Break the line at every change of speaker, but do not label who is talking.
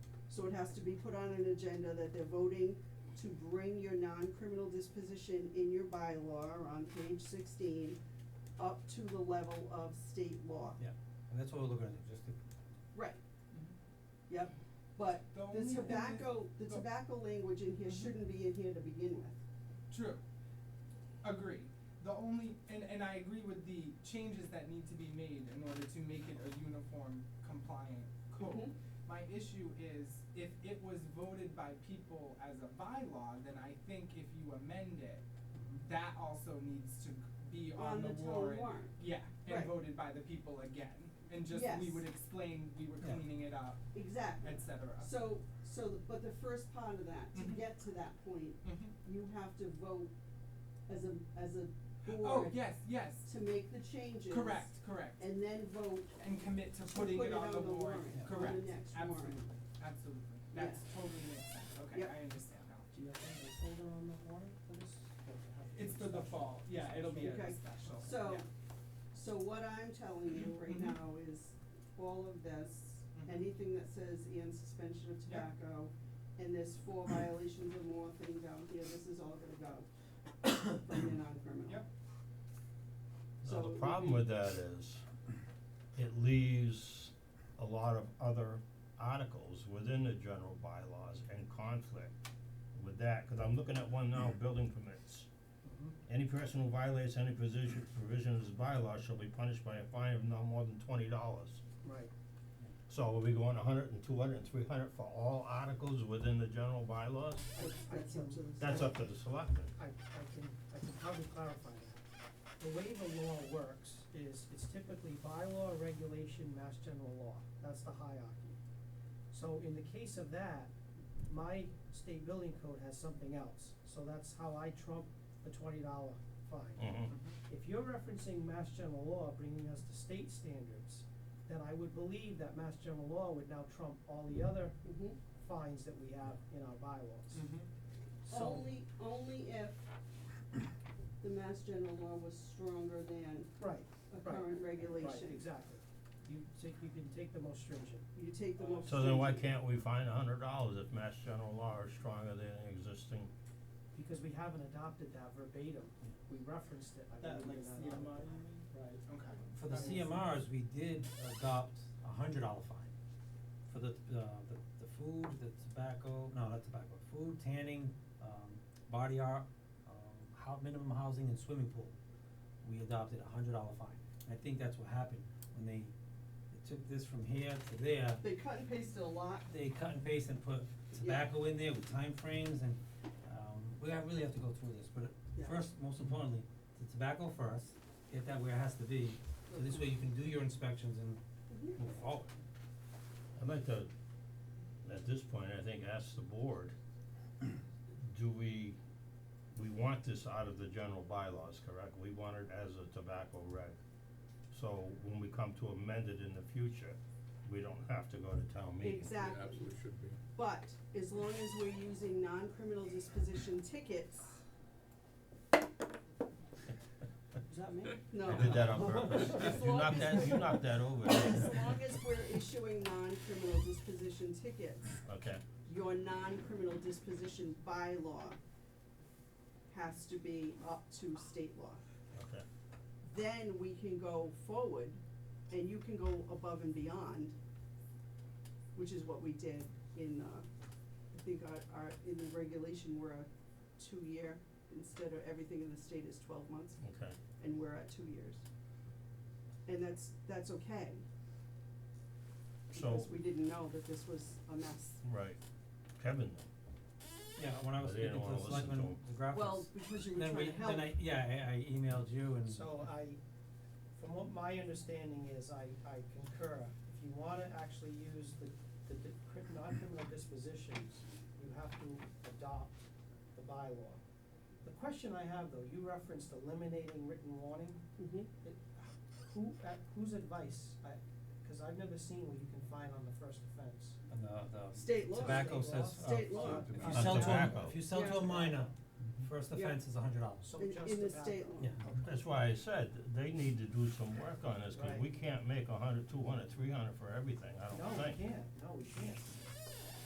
So it has to be put on an agenda that they're voting to bring your non-criminal disposition in your bylaw on page sixteen up to the level of state law.
Yeah, and that's what we're looking at, just to,
Right, yep, but
The only
the
thing oh. that-
tobacco, the
the-
tobacco language in here
Mhm.
shouldn't be in here to begin with.
True. Agree. The only and, and I agree with the changes that need to be made in order to make it a uniform compliant code.
Mhm.
My issue is if it was voted by people as a bylaw, then I think if you amend it, that also needs to be on,
On the town
warrant.
warrant.
Yeah, and
Right.
voted by the people again. And just we
Yes.
would explain we were
Yeah.
cleaning it up,
Exactly.
etc.
So, so, the- but the first part of that, to
Mhm.
get to that point,
Mhm.
you have to vote as a, as a
Oh
board
yes, yes.
to make the changes.
Correct, correct.
And then vote,
and commit to
To
putting
put
it
it
on
on
the
the
warrant,
warrant,
on
correct,
the next warrant.
absolutely, absolutely, that's totally makes sense, okay,
Yep.
I understand now.
Do you think it's older on the warrant for this? Or do you
Uh,
have to
It's
do
for the
special?
fall, yeah, it'll be a
Okay.
special, yeah.
so, so what I'm telling you right
Mhm.
now is all of this,
Mhm.
anything that says and suspension of
Yeah.
tobacco, and there's four violations or more thing down here, this is all gonna go from the non-criminal.
Yep.
So
Now,
it
the
would
problem
be-
with that is, it leaves a lot of other articles within the general bylaws in conflict with that, cause I'm looking at one now, building permits.
Mm-hmm.
Any person who violates any position, provision of this bylaw shall be punished by a fine of no more than twenty dollars.
Right.
So are we going a hundred and two hundred and three hundred for all articles within the general bylaws?
I, I
That's
can,
up to the
That's up to the selectmen.
I, I can, I can probably clarify that. The way the law works is it's typically bylaw, regulation, mass general law, that's the hierarchy. So in the case of that, my state building code has something else, so that's how I trump the twenty dollar fine.
Mm-hmm.
Mhm.
Mm-hmm.
If you're referencing mass general law bringing us to state standards, then I would believe that mass general law would now trump all the other
Mhm.
fines that we have in our bylaws.
Mhm.
Mm-hmm.
So-
Only, only if the mass general law was stronger than
Right,
a
Right.
current regulation.
right, exactly. You take, you can take the most stringent.
You take
Oh,
the most.
So then why
stringent.
can't we find a hundred dollars if mass general law is stronger than the existing?
Because we haven't adopted that verbatim, we referenced it, I
that
believe, in
like
that
CMR,
article.
right,
Okay.
for the
That makes sense.
CMRs, we did adopt a hundred dollar fine. For the, uh, the, the food, the tobacco, no, not tobacco, food, tanning, um, body art, um, hou- minimum housing and swimming pool. We adopted a hundred dollar fine, I think that's what happened when they, they took this from here to there,
They cut and pasted a lot.
they cut and paste and put tobacco in there with timeframes and, um, we have, really have to go through this, but
Yeah.
first, most importantly, the tobacco first, get that where it has to be, so this way you can do your inspections and
Mhm.
move forward.
I'd like to, at this point, I think, ask the board, do we, we want this out of the general bylaws, correct? We want it as a tobacco reg. So when we come to amend it in the future, we don't have to go to town meeting.
Exactly.
Absolutely should be.
But as long as we're using non-criminal disposition tickets,
Is that me?
no.
I did that on purpose.
As
You
long
knocked
as-
that, you knocked that over.
As long as we're issuing non-criminal disposition tickets,
Okay,
your non-criminal disposition bylaw has to be up to state law.
okay.
Then we can go forward and you can go above and beyond, which is what we did in, uh, I think our, our, in the regulation, we're a two-year, instead of everything in the state is twelve months.
Okay.
and we're at two years. And that's, that's okay.
So,
Because we didn't know that this was a mess.
right, Kevin,
Yeah, when I was
But they don't
speaking to
wanna
the
listen
selectmen,
to 'em.
the graphics,
Well, because you were
then
trying
we,
to help.
then I, yeah, I, I emailed you and.
So I, from what my understanding is, I, I concur. If you wanna actually use the, the di- cri- non-criminal dispositions, you have to adopt the bylaw. The question I have though, you referenced eliminating written warning.
Mhm.
It- Who, at whose advice? I, cause I've never seen what you can find on the first offense.
And the, the.
State law.
Tobacco
State law.
says, uh,
State law.
if
On
you sell to a,
tobacco.
if you sell to
Yeah. Mm-hmm.
a minor, first
Yeah.
offense is a hundred dollars.
So
In-
just
in the
tobacco.
state law.
Yeah.
That's why I said, they need to do some work on this, cause
Right.
we can't make a hundred, two hundred, three hundred for everything, I
No,
don't
we
think.
can't, no, we can't.